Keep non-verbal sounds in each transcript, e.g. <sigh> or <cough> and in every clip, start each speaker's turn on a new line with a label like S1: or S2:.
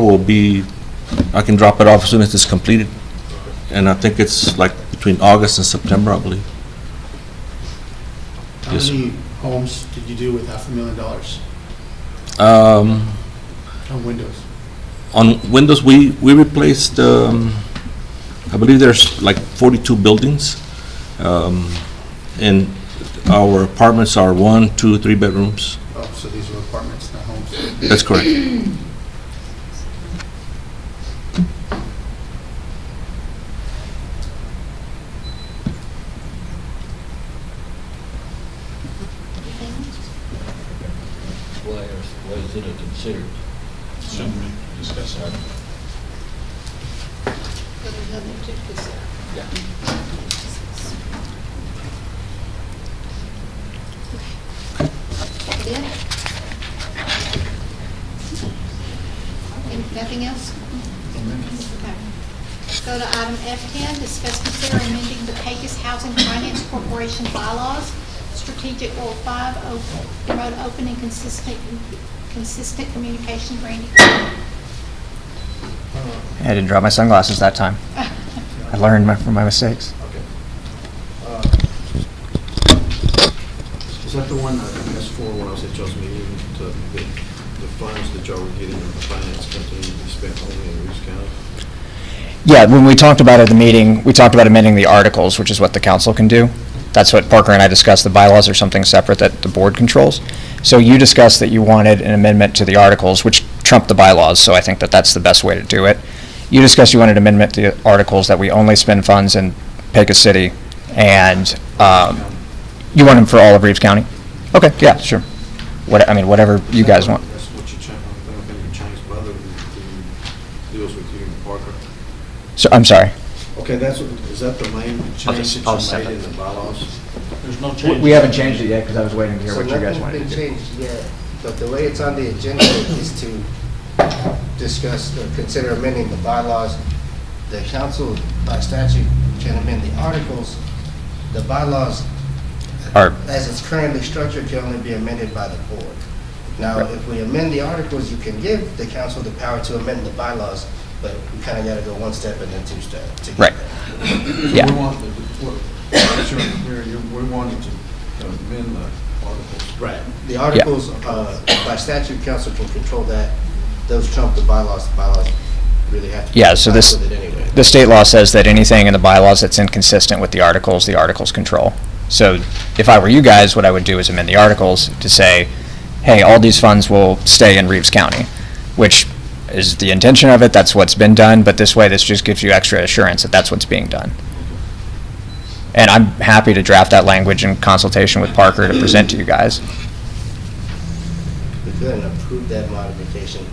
S1: will be, I can drop it off as soon as it's completed. And I think it's like between August and September, I believe.
S2: How
S1: Yes, sir.
S2: many homes did you do with half a million dollars
S1: Um,
S2: on windows?
S1: On Windows, we, we replaced, um, I believe there's like 42 buildings. Um, And our apartments are one, two, three bedrooms.
S2: Oh, so these were apartments, not homes.
S1: That's correct.
S3: Why, are- why is it a considered?
S4: But there's nothing to consider. Yeah. And Nothing else? Okay. Go to item F10, discuss, consider amending the Pecos Housing Finance Corporation bylaws, strategic goal five, o- promote open and consistent, consistent communication, Randy.
S5: I didn't drop my sunglasses that time. I learned my, from my mistakes.
S6: Is that the one, I asked for when I was at Joe's meeting, to, the, the funds that Joe were getting from the finance company, you spent only in Reeves County?
S5: Yeah, when we talked about it at the meeting, we talked about amending the articles, which is what the council can do. That's what Parker and I discussed, the bylaws are something separate that the board controls. So you discussed that you wanted an amendment to the articles, which trumped the bylaws, so I think that that's the best way to do it. You discussed you wanted amendment to the articles that we only spend funds in Pecos City, and, um, you want them for all of Reeves County? Okay, yeah, sure. What, I mean, whatever you guys want.
S6: That's what you changed, I don't think you changed, but other than the deals with you and Parker.
S5: So, I'm sorry.
S6: Okay, that's, what- is that the
S5: Oh,
S6: main change
S5: I'll just- I'll
S6: that you made in the bylaws?
S3: There's no
S5: We-
S3: change.
S5: We haven't changed it yet, because I was waiting to hear
S7: So
S5: what you guys
S7: nothing's
S5: wanted
S7: been
S5: to do.
S7: changed yet, but the way it's on the agenda is to discuss or consider amending the bylaws. The council by statute can amend the articles. The bylaws,
S5: Or,
S7: as it's currently structured, can only be amended by the board. Now, if we amend the articles, you can give the council the power to amend the bylaws, but we kind of got to go one step and then two steps to get
S5: Right.
S7: there.
S5: Yeah.
S6: So we want, the- what, that's your- you're- you're- we wanted to amend the articles.
S7: Right. The articles, uh, by statute, council can control that. Those trump the bylaws. The bylaws really have to.
S5: Yeah, so this-
S7: comply With it anyway.
S5: the state law says that anything in the bylaws that's inconsistent with the articles, the articles control. So if I were you guys, what I would do is amend the articles to say, hey, all these funds will stay in Reeves County, which is the intention of it, that's what's been done, but this way, this just gives you extra assurance that that's what's being done. And I'm happy to draft that language in consultation with Parker to present to you guys.
S7: We couldn't approve that modification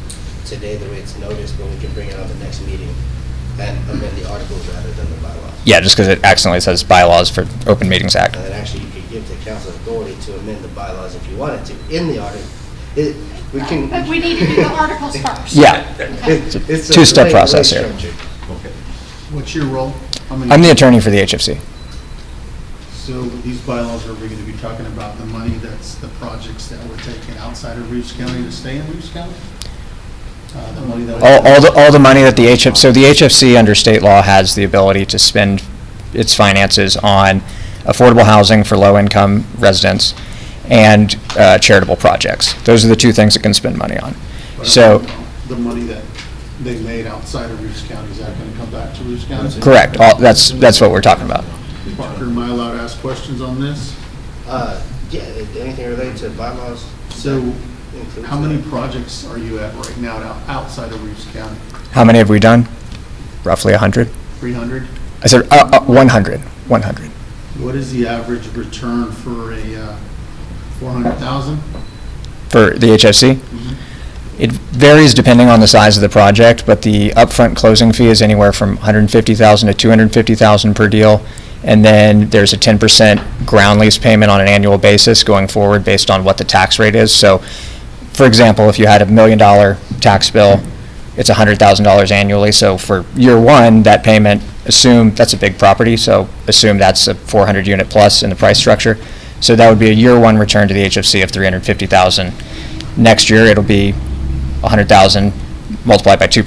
S7: today, the way it's noticed, but we can bring it on the next meeting and amend the articles rather than the bylaws.
S5: Yeah, just because it accidentally says bylaws for Open Meetings Act.
S7: And then actually, you could give the council authority to amend the bylaws if you wanted to in the article. It, we can.
S4: But <laughs> we need to do the articles first.
S5: Yeah,
S7: It's it's a
S5: Two-step
S7: great- great
S5: process here.
S7: structure.
S2: What's your role? How many-
S5: I'm the attorney for the HFC.
S2: So with these bylaws, are we going to be talking about the money that's the projects that were taken outside of Reeves County to stay in Reeves County? Uh, The money that.
S5: All, all the, all the money that the HF, so the HFC under state law has the ability to spend its finances on affordable housing for low-income residents and uh, charitable projects. Those are the two things it can spend money on. So,
S2: The money that they made outside of Reeves County, is that going to come back to Reeves County?
S5: correct, all, that's, that's what we're talking about.
S2: Parker, am I allowed to ask questions on this?
S7: Uh, yeah, anything related to bylaws?
S2: So
S7: includes
S2: how many
S7: that.
S2: projects are you at right now out- outside of Reeves County?
S5: How many have we done? Roughly 100?
S2: 300?
S5: I said, uh, uh, 100, 100.
S2: What is the average return for a uh, 400,000?
S5: for the HFC. It varies depending on the size of the project, but the upfront closing fee is anywhere from 150,000 to 250,000 per deal. And then there's a 10% ground lease payment on an annual basis going forward based on what the tax rate is. So, for example, if you had a million dollar tax bill, it's $100,000 annually. So for year one, that payment, assume, that's a big property, so assume that's a 400 unit plus in the price structure. So that would be a year one return to the HFC of 350,000. Next year, it'll be 100,000 multiply it by two percent.